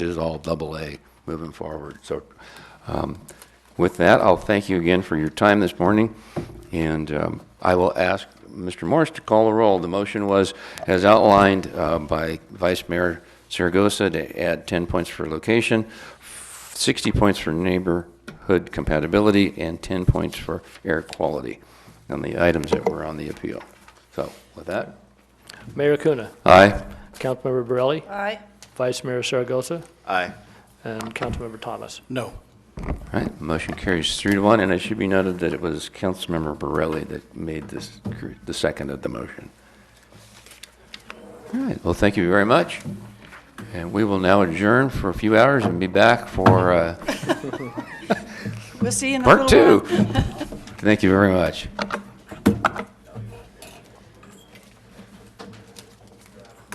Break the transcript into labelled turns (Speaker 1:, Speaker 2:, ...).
Speaker 1: it is all double A moving forward. So um, with that, I'll thank you again for your time this morning, and um, I will ask Mr. Morris to call the roll. The motion was, as outlined uh, by Vice Mayor Saragosa, to add 10 points for location, 60 points for neighborhood compatibility, and 10 points for air quality on the items that were on the appeal. So with that,
Speaker 2: Mayor Acuna,
Speaker 1: aye.
Speaker 2: Councilmember Borelli,
Speaker 3: Aye.
Speaker 2: Vice Mayor Saragosa,
Speaker 4: Aye.
Speaker 2: and Councilmember Thomas.
Speaker 4: No.
Speaker 1: All right, the motion carries three to one, and it should be noted that it was Councilmember Borelli that made this, cr- the second of the motion. All right, well, thank you very much, and we will now adjourn for a few hours and be back for uh,
Speaker 3: We'll see you in a
Speaker 1: part two.
Speaker 3: little while.
Speaker 1: Thank you very much.